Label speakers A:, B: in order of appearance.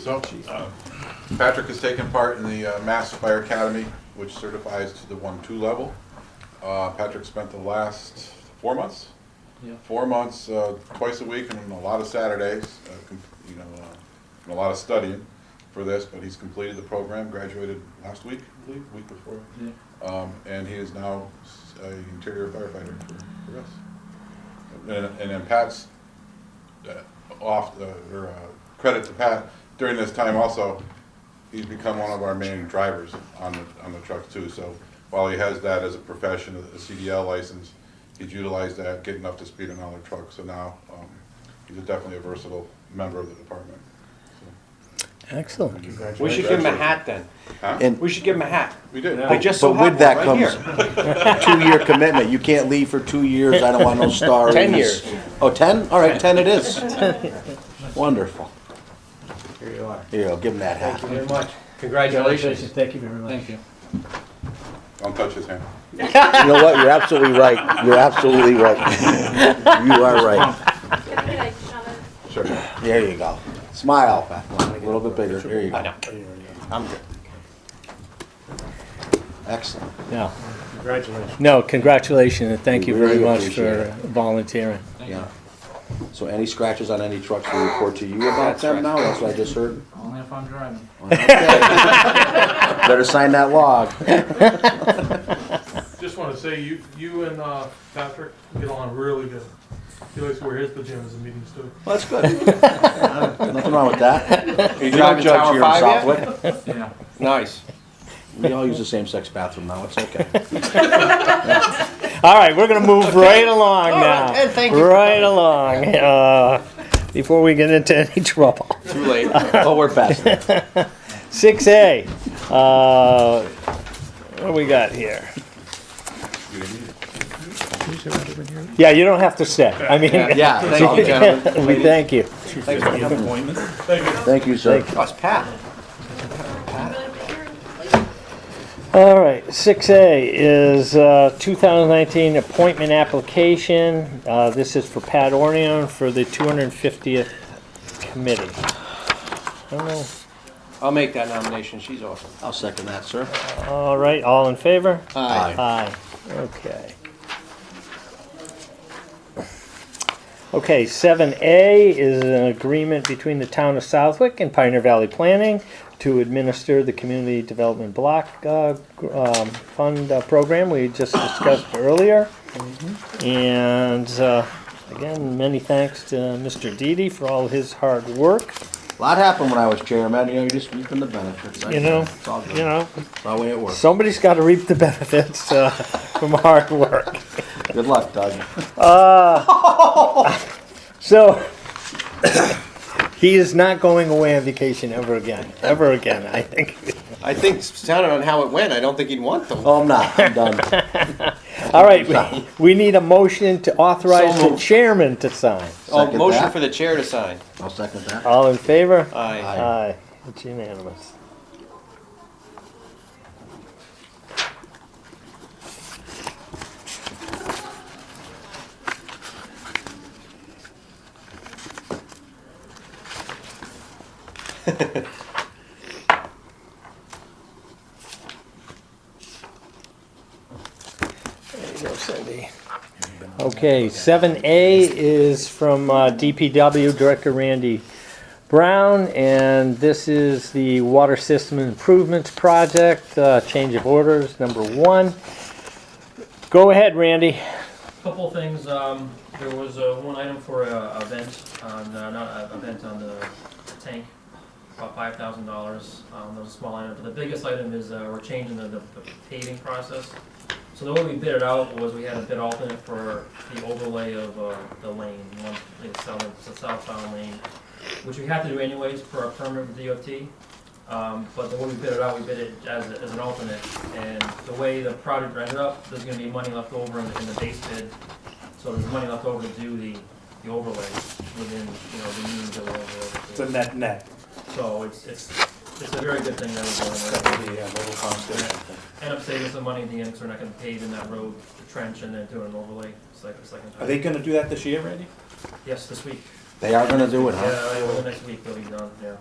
A: So, uh, Patrick has taken part in the uh, Mass Fire Academy, which certifies to the one-two level. Uh, Patrick spent the last four months,
B: Yeah.
A: four months, uh, twice a week and a lot of Saturdays, uh, com- you know, uh, and a lot of studying for this, but he's completed the program, graduated last week, I believe, week before.
B: Yeah.
A: Um, and he is now s- a interior firefighter for, for us. And, and then Pat's uh, off the, or uh, credit to Pat during this time also. He's become one of our main drivers on the on the truck too. So while he has that as a profession, a CDL license, he's utilized that, getting up to speed on all the trucks. So now um, he's a definitely a versatile member of the department.
C: Excellent.
A: So,
D: We should give him a hat then.
A: Huh?
C: And
D: We should give him a hat.
A: we did.
D: I just so
C: But with
D: have
C: that
D: one right
C: comes two-year commitment. You can't leave for two years. I don't want no star.
D: 10
C: ratings.
D: years.
C: Oh, 10? All right, 10 it is. Wonderful.
E: Here you are.
C: Here, I'll give him that
E: Thank you
C: hat.
E: very much.
D: Congratulations.
E: Thank you very much.
B: Thank you.
A: Don't touch his hand.
C: You know what? You're absolutely right. You're absolutely right. You are right.
A: Sure.
C: There you go. Smile. A little bit bigger. There you
D: I
C: go.
D: know.
C: I'm good. Excellent.
F: No,
E: Congratulations.
F: no, congratulations, and thank you
C: We really
F: very much
C: appreciate
F: for
C: it.
F: volunteering.
B: Thank
C: Yeah. So any scratches on any trucks, we report to you about
D: That's
C: them
D: right.
C: now? That's what I just heard?
B: you. Only if I'm driving.
C: Better sign that log.
G: Just want to say, you, you and uh, Patrick get along really good. He likes to wear his pajamas in meetings too.
C: Well, that's good. Nothing wrong with that.
D: You
C: We don't
D: driving
C: judge
D: Tower
C: here in
D: Five yet?
C: Southwick.
B: Yeah.
D: Nice.
C: We all use the same sex bathroom now, it's okay.
F: All right, we're gonna move right along now. Right along, uh, before we get into any trouble.
D: Too late.
C: Oh, we're fast.
F: Six A, uh, what do we got here?
A: You didn't need it.
F: Yeah, you don't have to sit, I mean.
C: Yeah,
D: Thank you, gentlemen.
F: We thank you.
C: Thank you, sir.
D: Oh, it's Pat.
F: All right, six A is uh, 2019 appointment application. Uh, This is for Pat Orneon for the 250th committee. I don't know.
D: I'll make that nomination. She's awesome.
C: I'll second that, sir.
F: All right, all in favor?
C: Aye.
F: Aye, okay. Okay, seven A is an agreement between the town of Southwick and Pioneer Valley Planning to administer the Community Development Block, uh, gr- um, Fund uh, Program we just discussed earlier. And, uh, again, many thanks to Mr. Didi for all his hard work,
C: A lot happened when I was chairman, you know, you just reaping the benefits. I
F: You know,
C: It's all good.
F: you know.
C: It's all the way it works.
F: Somebody's gotta reap the benefits, uh, from hard work.
C: Good luck, Doug.
F: So he is not going away on vacation ever again. Ever again, I think.
D: I think, sounded on how it went, I don't think he'd want them.
C: Oh, I'm not, I'm done.
F: All right, we, we need a motion to authorize
D: So
F: the
D: moved.
F: chairman to sign.
D: Oh,
C: Second
D: motion
C: that.
D: for the chair to sign.
C: I'll second that.
F: All in favor?
D: Aye.
F: Aye. It's unanimous. There you go, Cindy. Okay, seven A is from uh, DPW Director Randy Brown, and this is the Water System Improvements Project, uh, change of orders, number one. Go ahead, Randy.
H: Couple things, um, there was, uh, one item for a, a vent on, uh, not a, a vent on the tank, about five thousand dollars, um, that was a small item, but the biggest item is, uh, we're changing the, the paving process. So the way we bid it out was we had a bid alternate for the overlay of, uh, the lane, one, the south, the southbound lane, which we have to do anyways for our permit with DOT. Um, but the way we bid it out, we bid it as, a- as an alternate, and the way the project ended up, there's gonna be money left over in the, in the base bid. So there's money left over to do the, the overlay within, you know, the means of the overlay.
E: It's a net net.
H: So it's, it's, it's a very good thing that we're
E: That
H: doing.
E: would be a little constant.
H: We're gonna End up saving some money at the end, so we're not gonna pave in that road, the trench, and then do an overlay, second, second time.
E: Are they going to do that this year, Randy?
H: Yes, this week.
C: They are gonna do it,
H: Yeah,
C: huh?
H: over the next week, they'll be done, yeah.